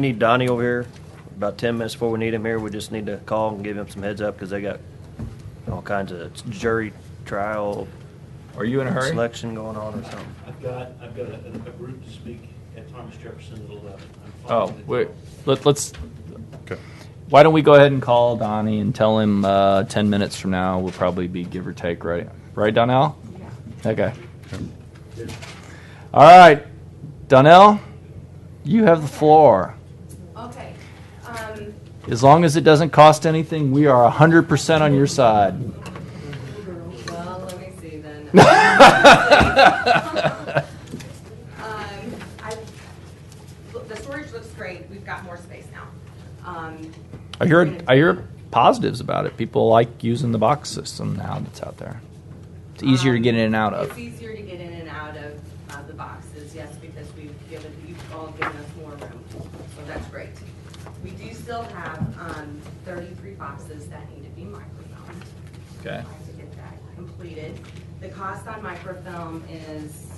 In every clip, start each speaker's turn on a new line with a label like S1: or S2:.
S1: Need Donnie over here, about ten minutes before we need him here, we just need to call and give him some heads up, because they got all kinds of jury trial
S2: Are you in a hurry?
S1: selection going on or something.
S3: I've got, I've got a, a group to speak at Thomas Jefferson at eleven. I'm
S2: Oh,
S3: following the-
S2: wait, let, let's,
S4: Okay.
S2: why don't we go ahead and call Donnie and tell him, uh, ten minutes from now, will probably be give or take, right? Right, Donnell? Okay. All right, Donnell, you have the floor.
S5: Okay, um,
S2: As long as it doesn't cost anything, we are hundred percent on your side.
S5: well, let me see then. Um, Um, I, look, the storage looks great, we've got more space now. Um,
S2: I hear, I hear positives about it. People like using the box system now that's out there. It's easier to
S5: um,
S2: get in and out of.
S5: It's easier to get in and out of, uh, the boxes, yes, because we've given, you've all given us more room, so that's great. We do still have, um, thirty-three boxes that need to be microfilmed.
S2: Okay.
S5: To get that completed. The cost on microfilm is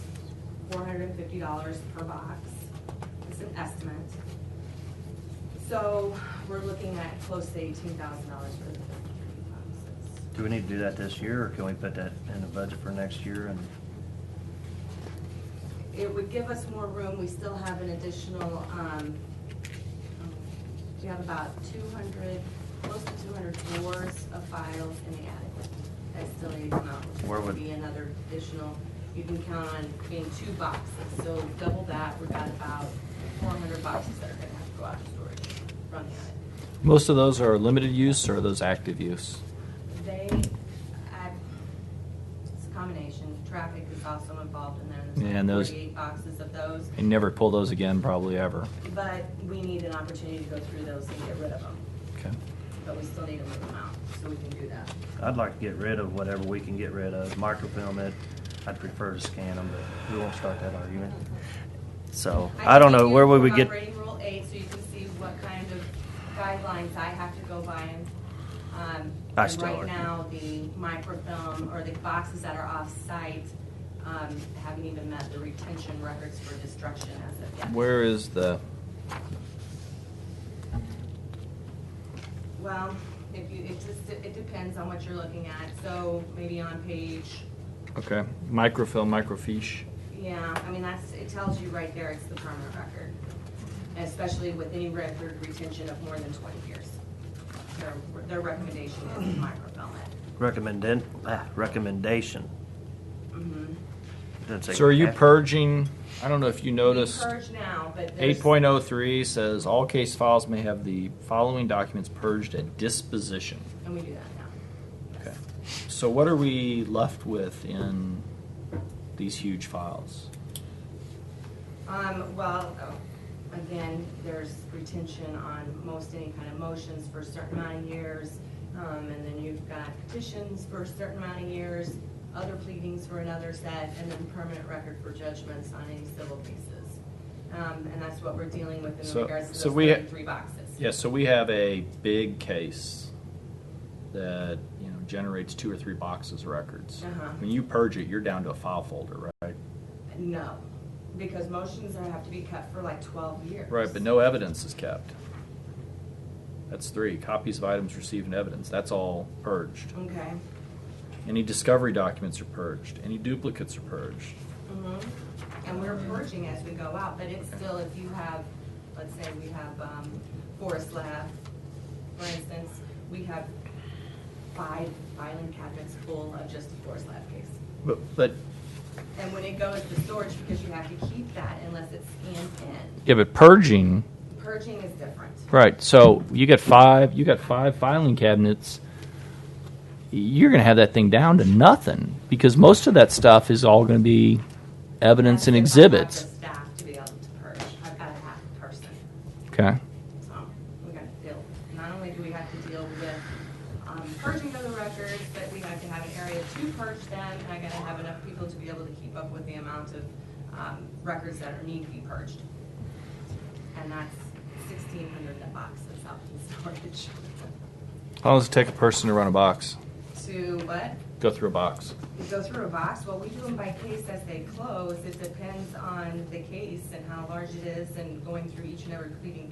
S5: four hundred and fifty dollars per box. It's an estimate. So we're looking at close to eighteen thousand dollars for the thirty-three boxes.
S1: Do we need to do that this year, or can we put that in the budget for next year and?
S5: It would give us more room, we still have an additional, um, oh, we have about two hundred, close to two hundred drawers of files in the attic that still need to come out. which is
S1: Where
S5: gonna
S1: would-
S5: Be another additional, you can count on being two boxes, so double that, we've got about four hundred boxes that are gonna have to go out of storage from the attic.
S2: Most of those are limited use or are those active use?
S5: They, I, it's a combination, traffic is also involved in there,
S2: Yeah, and those-
S5: there's like forty-eight boxes of those.
S2: And never pull those again, probably ever.
S5: But we need an opportunity to go through those and get rid of them,
S2: Okay.
S5: but we still need to move them out, so we can do that.
S1: I'd like to get rid of whatever we can get rid of, microfilm it, I'd prefer to scan them, but we won't start that argument. So, I don't know,
S5: think
S1: where
S5: you
S1: would we
S5: have
S1: get,
S5: Operating Rule 8, so you can see what kind of guidelines I have to go by. and, um,
S1: I
S5: and
S1: still
S5: Right
S1: argue.
S5: now, the microfilm or the boxes that are off-site um, haven't even met the retention records for destruction as of yet.
S2: Where is the?
S5: Well, if you, it just, it depends on what you're looking at, so maybe on page
S2: Okay. Microfilm, microfiche.
S5: Yeah, I mean, that's, it tells you right there, it's the permanent record, especially with any record retention of more than twenty years. Their, their recommendation is microfilm it.
S1: recommended, ah, recommendation.
S5: Mhm.
S1: Didn't say
S2: So are you
S1: have-
S2: purging? I don't know if you noticed.
S5: We Purge now, but there's.
S2: Eight point oh three says all case files may have the following documents purged at disposition.
S5: And we do that now.
S2: Okay.
S5: Yes.
S2: So what are we left with in these huge files?
S5: Um, well, uh, again, there's retention on most any kind of motions for a certain amount of years. Um, and then you've got petitions for a certain amount of years, other pleadings for another set, and then permanent record for judgments on any civil cases. Um, and that's what we're dealing with in
S2: So-
S5: regards to
S2: so
S5: those
S2: we ha-
S5: thirty-three boxes.
S2: Yeah, so we have a big case that, you know, generates two or three boxes of records.
S5: Uh-huh.
S2: When you purge it, you're down to a file folder, right?
S5: No, because motions are- have to be kept for like twelve years.
S2: Right, but no evidence is kept. That's three, copies of items received in evidence, that's all purged.
S5: Okay,
S2: Any discovery documents are purged, any duplicates are purged.
S5: hmm And we're purging as we go out, but it's still, if you have, let's say we have, um, Forest Lab, for instance, we have five filing cabinets full of just the Forest Lab case.
S2: But, but.
S5: And when it goes to storage, because you have to keep that unless it's scanned in,
S2: Yeah, but purging,
S5: purging is different.
S2: right, so you got five, you got five filing cabinets. You're gonna have that thing down to nothing, because most of that stuff is all gonna be evidence and
S5: That's if I have
S2: exhibits.
S5: the Staff to be able to purge, I've got to have a person.
S2: Okay.
S5: So we got to deal, not only do we have to deal with um, purging of the records, but we have to have an area to purge them, and I gotta have enough people to be able to keep up with the amount of um, records that are need to be purged. And that's sixteen hundred boxes up in storage.
S2: How long does it take a person to run a box?
S5: To what?
S2: Go through a box.
S5: We go through a box, well, we do them by case as they close, it depends on the case and how large it is, and going through each and every pleading